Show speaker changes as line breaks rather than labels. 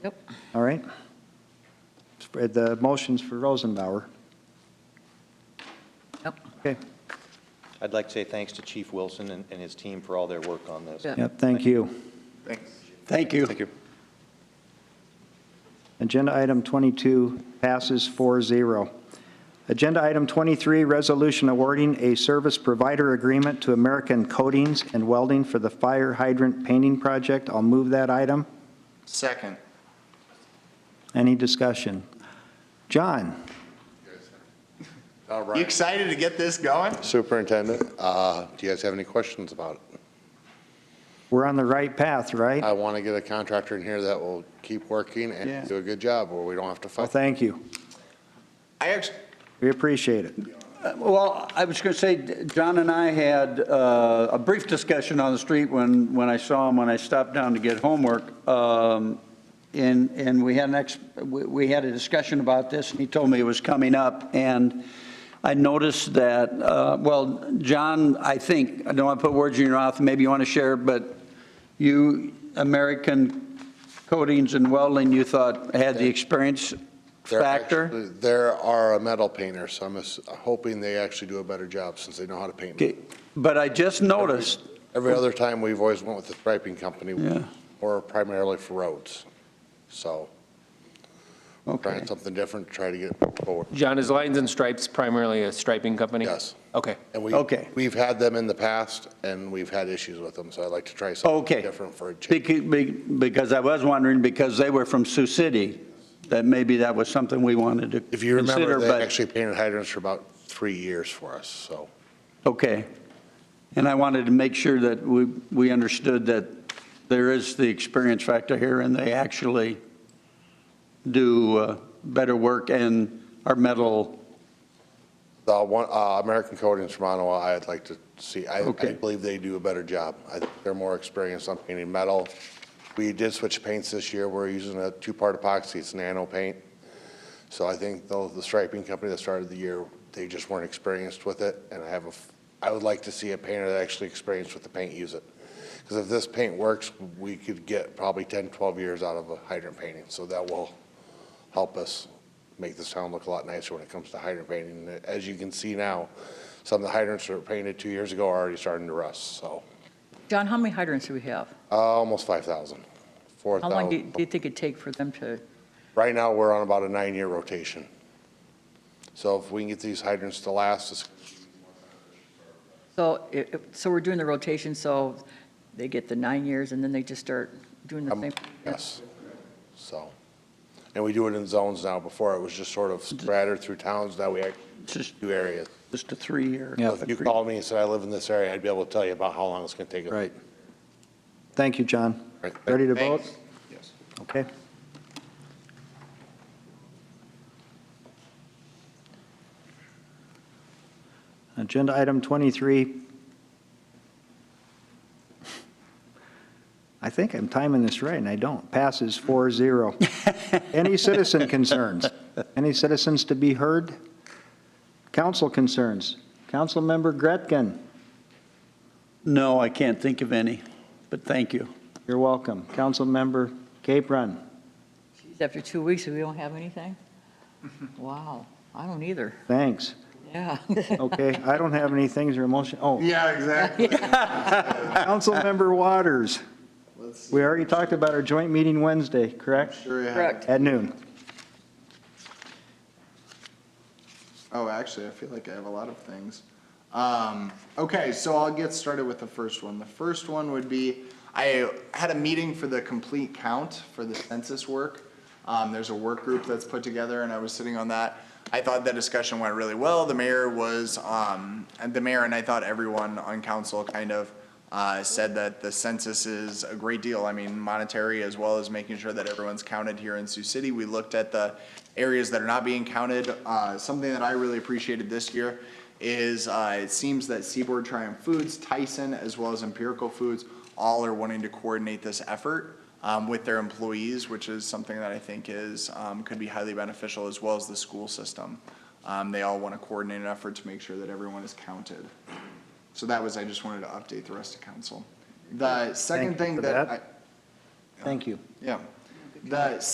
All right? Spread the motions for Rosenbauer.
Yep.
Okay,
I'd like to say thanks to Chief Wilson and, and his team for all their work on this.
Yeah.
yep, thank you.
Thank you.
Thank you.
Agenda item 22 passes 4-0. Agenda item 23, resolution awarding a service provider agreement to American Coatings and Welding for the fire hydrant painting project. I'll move that item.
Second.
Any discussion? John?
All
You
right,
excited to get this going?
Superintendent, uh, do you guys have any questions about it?
We're on the right path, right?
I want to get a contractor in here that will keep working
Yeah.
and do a good job, or we don't have to
Well,
fight.
thank you.
I actually,
We appreciate it.
Well, I was going to say, John and I had uh, a brief discussion on the street when, when I saw him, when I stopped down to get homework. um, And, and we had an ex, we we had a discussion about this, and he told me it was coming up. And I noticed that, uh, well, John, I think, I don't want to put words in your mouth, maybe you want to share, but you, American Coatings and Welding, you thought had the experience
They're
factor?
actually- There are a metal painter, so I'm ass- hoping they actually do a better job since they know how to paint.
Okay, But I just noticed,
Every other time, we've always went with the striping company,
Yeah.
or primarily for roads. So
okay,
trying something different, try to get forward.
John, is Lines and Stripes primarily a striping company?
Yes.
Okay.
And we,
Okay.
we've had them in the past, and we've had issues with them, so I'd like to try something
Okay.
different for a change.
Becau- be- because I was wondering, because they were from Sioux City, that maybe that was something we wanted to consider, but.
If you remember, they actually painted hydrants for about three years for us, so.
Okay. And I wanted to make sure that we, we understood that there is the experience factor here, and they actually do uh, better work and are metal,
The one, uh, American Coatings from Ottawa, I'd like to see, I, I
Okay.
believe they do a better job. I think they're more experienced on painting metal. We did switch paints this year, we're using a two-part epoxy, it's nano paint. So I think though the striping company that started the year, they just weren't experienced with it, and I have a, f- I would like to see a painter that actually experienced with the paint use it. Because if this paint works, we could get probably 10, 12 years out of a hydrant painting, so that will help us make this town look a lot nicer when it comes to hydrant painting. And As you can see now, some of the hydrants that were painted two years ago are already starting to rust, so,
John, how many hydrants do we have?
uh, almost 5,000,
How long do you do
4,000.
you think it'd take for them to,
Right now, we're on about a nine-year rotation. So if we can get these hydrants to last, it's
so, it- it- so we're doing the rotation, so they get the nine years and then they just start doing the
Um,
same?
Yes, so. And we do it in zones now. Before, it was just sort of scattered through towns. Now we actually
it's just,
do areas.
just a three-year.
Yeah.
If you called me and said, I live in this area, I'd be able to tell you about how long it's going to take.
Right. Thank you, John.
Right.
Ready to vote?
Thanks.
Okay. Agenda item 23. I think I'm timing this right, and I don't. Passes 4-0. Any citizen concerns? Any citizens to be heard? Council concerns? Councilmember Gretkin,
No, I can't think of any, but thank you.
you're welcome. Councilmember Capron?
Geez, After two weeks, we don't have anything? Wow, I don't either,
Thanks.
yeah.
Okay, I don't have any things or emotion. Oh,
Yeah, exactly.
Councilmember Waters,
Let's see.
we already talked about our joint meeting Wednesday, correct?
Sure you have it.
Correct.
At noon.
Oh, actually, I feel like I have a lot of things. Um, okay, so I'll get started with the first one. The first one would be, I had a meeting for the complete count for the census work. Um, there's a work group that's put together and I was sitting on that. I thought that discussion went really well. The mayor was, um, and the mayor and I thought everyone on council kind of, uh, said that the census is a great deal. I mean, monetary as well as making sure that everyone's counted here in Sioux City. We looked at the areas that are not being counted. Uh, something that I really appreciated this year is, uh, it seems that Seaboard Triumph Foods, Tyson, as well as Empirical Foods, all are wanting to coordinate this effort, um, with their employees, which is something that I think is, um, could be highly beneficial as well as the school system. Um, they all want to coordinate an effort to make sure that everyone is counted. So that was, I just wanted to update the rest of council. The
Thank you
second thing
for
that I,
that. Thank you.
yeah. The